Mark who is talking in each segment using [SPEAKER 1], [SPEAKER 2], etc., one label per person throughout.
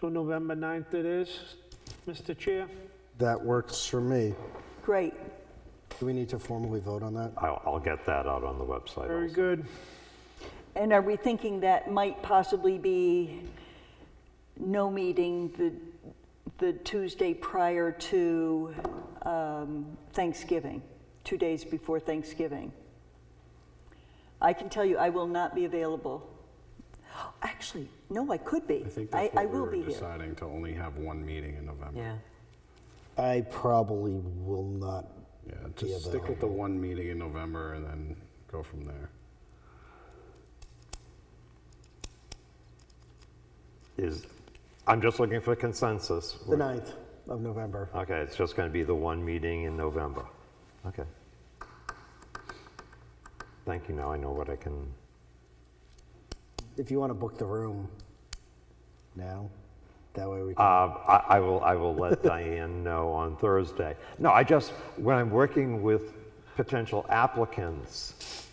[SPEAKER 1] So November 9th it is, Mr. Chair?
[SPEAKER 2] That works for me.
[SPEAKER 3] Great.
[SPEAKER 2] Do we need to formally vote on that?
[SPEAKER 4] I'll, I'll get that out on the website.
[SPEAKER 1] Very
[SPEAKER 4] also.
[SPEAKER 1] good.
[SPEAKER 3] And are we thinking that might possibly be no meeting the, the Tuesday prior to um, Thanksgiving, two days before Thanksgiving? I can tell you, I will not be available. Actually, no, I could be.
[SPEAKER 5] I think
[SPEAKER 3] I,
[SPEAKER 5] that's
[SPEAKER 3] I
[SPEAKER 5] what we
[SPEAKER 3] will
[SPEAKER 5] were
[SPEAKER 3] be here.
[SPEAKER 5] deciding, to only have one meeting in November.
[SPEAKER 6] Yeah.
[SPEAKER 2] I probably will not.
[SPEAKER 5] Yeah, just stick with the one meeting in November and then go from there.
[SPEAKER 4] Is, I'm just looking for consensus.
[SPEAKER 2] The 9th of November.
[SPEAKER 4] Okay, it's just going to be the one meeting in November. Okay. Thank you, now I know what I can,
[SPEAKER 2] If you want to book the room now, that way we
[SPEAKER 4] uh,
[SPEAKER 2] can.
[SPEAKER 4] I, I will, I will let Diane know on Thursday. No, I just, when I'm working with potential applicants,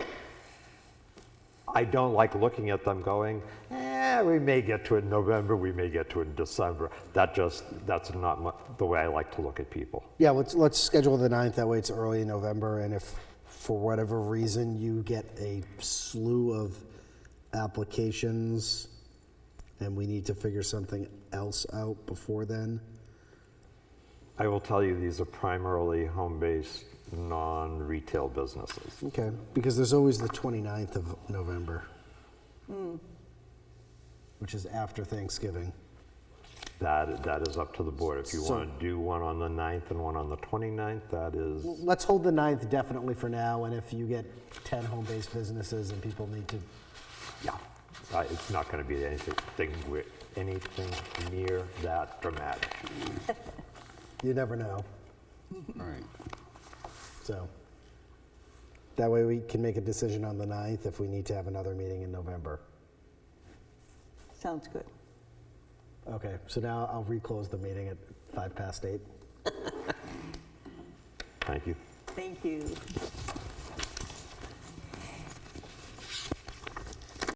[SPEAKER 4] I don't like looking at them going, eh, we may get to it in November, we may get to it in December. That just, that's not mu- the way I like to look at people.
[SPEAKER 2] Yeah, let's, let's schedule the 9th, that way it's early in November, and if for whatever reason you get a slew of applications and we need to figure something else out before then,
[SPEAKER 4] I will tell you, these are primarily home-based, non-retail businesses.
[SPEAKER 2] okay, because there's always the 29th of November, which is after Thanksgiving.
[SPEAKER 4] That, that is up to the board. If you want to do one on the 9th and one on the 29th, that is,
[SPEAKER 2] Let's hold the 9th definitely for now, and if you get 10 home-based businesses and people need to,
[SPEAKER 4] yeah, Uh, it's not going to be anything, thing wi- anything near that dramatic.
[SPEAKER 2] you never know.
[SPEAKER 5] All right.
[SPEAKER 2] So that way we can make a decision on the 9th if we need to have another meeting in November.
[SPEAKER 3] Sounds good.
[SPEAKER 2] Okay, so now I'll reclose the meeting at 5 past 8.
[SPEAKER 4] Thank you.
[SPEAKER 3] Thank you.